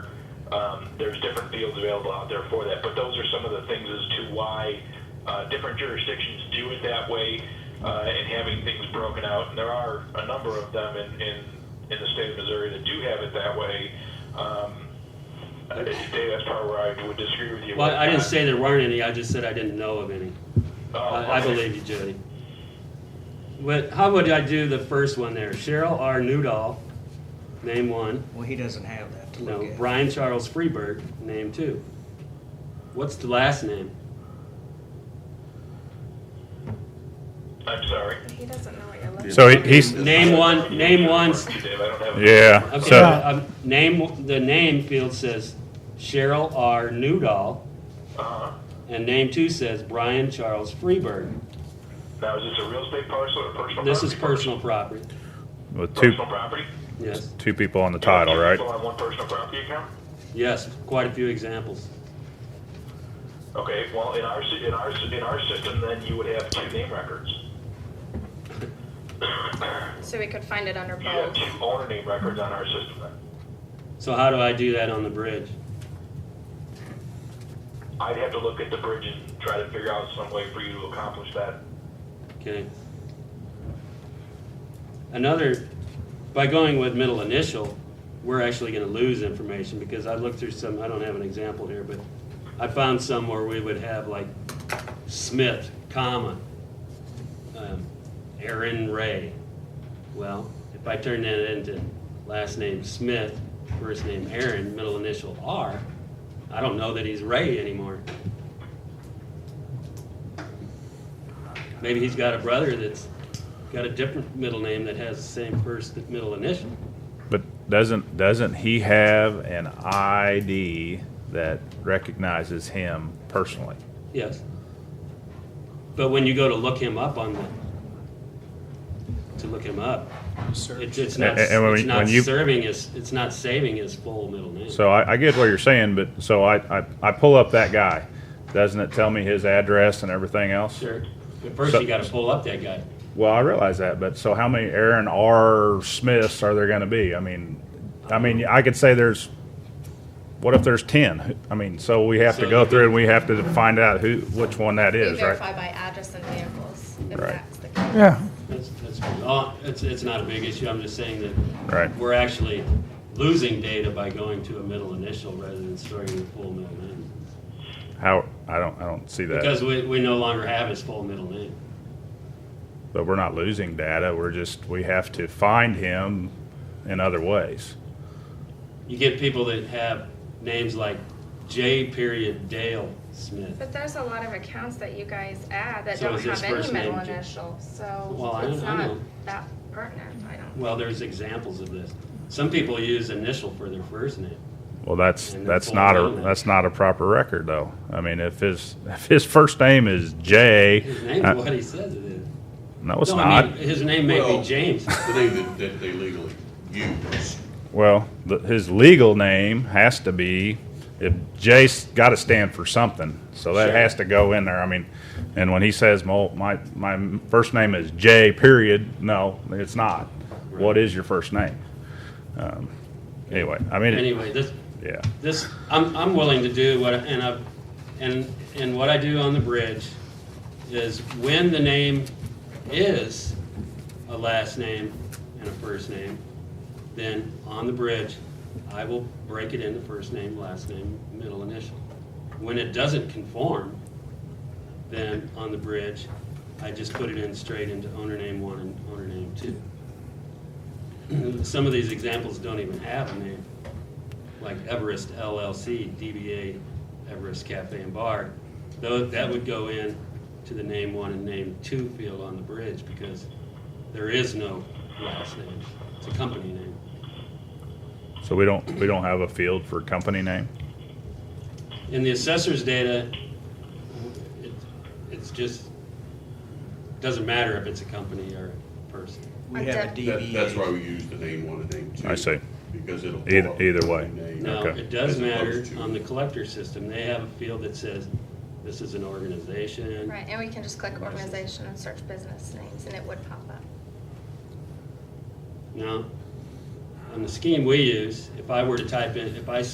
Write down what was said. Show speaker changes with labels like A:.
A: Um, there's different fields available out there for that, but those are some of the things as to why uh, different jurisdictions do it that way uh, and having things broken out. And there are a number of them in, in, in the state of Missouri that do have it that way. Um, uh, Dave, that's probably where I would disagree with you.
B: Well, I didn't say there weren't any, I just said I didn't know of any.
A: Oh,
B: I, I
A: okay.
B: believe you, Jody. But how would I do the first one there? Cheryl R. Newdall, name one.
C: Well, he doesn't have that to
B: No,
C: look at.
B: Brian Charles Freeberg, name two. What's the last name?
A: I'm sorry.
D: He doesn't know what you're looking
E: So he- he's,
B: Name one, name one.
A: Dave, I don't have a-
E: yeah,
B: Okay,
E: so,
B: um, name, the name field says Cheryl R. Newdall,
A: Uh-huh.
B: and name two says Brian Charles Freeberg.
A: Now, is this a real estate parcel or a personal
B: This is
A: property?
B: personal property,
E: with two,
A: Personal property?
B: yes.
E: two people on the title, right?
A: People on one personal property account?
B: Yes, quite a few examples.
A: Okay, well, in our, si- in our, si- in our system, then you would have two name records.
D: at. So we could find it under
A: You have
D: both.
A: two owner name records on our system then.
B: So how do I do that on the bridge?
A: I'd have to look at the bridge and try to figure out some way for you to accomplish that.
B: Okay. Another, by going with middle initial, we're actually gonna lose information because I looked through some, I don't have an example here, but I found some where we would have like Smith, comma, um, Aaron Ray. Well, if I turn that into last name Smith, first name Aaron, middle initial R, I don't know that he's Ray anymore. Maybe he's got a brother that's got a different middle name that has the same first middle initial.
E: But doesn't, doesn't he have an ID that recognizes him personally?
B: Yes. But when you go to look him up on the, to look him up, it's, it's not,
E: And- and when
B: it's
E: you-
B: not
E: when you-
B: serving his, it's not saving his full middle name.
E: So I, I get what you're saying, but, so I, I, I pull up that guy. Doesn't it tell me his address and everything else?
B: Sure. But first
E: So-
B: you gotta pull up that guy.
E: Well, I realize that, but so how many Aaron R. Smiths are there going to be? I mean, I mean, I could say there's. What if there's ten? I mean, so we have
B: So
E: to go
B: the-
E: through and we have to find out who which one that
D: We
E: is,
D: verify
E: right?
D: by address and vehicles, if
E: Right.
D: that's the case.
F: Yeah,
B: That's, that's, oh, it's, it's not a big issue. I'm just saying that
E: Right.
B: we're actually losing data by going to a middle initial rather than storing the full middle name.
E: How I don't I don't see that.
B: Because we, we no longer have his full middle name.
E: But we're not losing data. We're just we have to find him in other ways.
B: You get people that have names like J. Period Dale Smith.
D: But there's a lot of accounts that you guys add that
B: So
D: don't
B: is his
D: have any
B: first
D: middle
B: name J-
D: initial,
B: Well,
D: so
B: I
D: it's
B: don't- I
D: not
B: don't know.
D: that pertinent, I don't.
B: Well, there's examples of this. Some people use initial for their first name.
E: Well, that's
B: And
E: that's
B: full
E: not a
B: name.
E: that's not a proper record though. I mean, if his if his first name is Jay,
B: His name's
E: uh,
B: what he says it is.
E: no, it's
B: no,
E: not.
B: I mean, his name may
G: Well-
B: be James.
G: the name that, that they legally use.
E: Well, the, his legal name has to be, if Jay's got to stand for something, so that
B: Sure.
E: has to go in there. I mean, and when he says, "Well, my my first name is Jay," period. No, it's not. What is your first name? Um, anyway, I mean, it-
B: Anyway, this
E: yeah,
B: this I'm, I'm willing to do what and I and and what I do on the bridge is when the name is a last name and a first name, then on the bridge I will break it into first name, last name, middle initial. When it doesn't conform, then on the bridge I just put it in straight into owner name one and owner name two. Some of these examples don't even have a name like Everest LLC, DBA Everest Cafe and Bar, though that would go in to the name one and name two field on the bridge because there is no last name. It's a company name.
E: so we don't we don't have a field for company name.
B: In the assessor's data, it, it's just, doesn't matter if it's a company or a person.
C: We have a
G: That, that's why
C: DBA.
G: we use the name one and name two.
E: I see.
G: Because it'll.
E: Either-
G: pull up
E: either
G: the
E: way.
G: name.
B: Now,
E: Okay.
B: it does
G: As
B: matter
G: opposed to-
B: on the collector system. They have a field that says, this is an organization.
D: Right, and we can just click organization and search business names, and it would pop up.
B: Now, on the scheme we use, if I were to type in, if I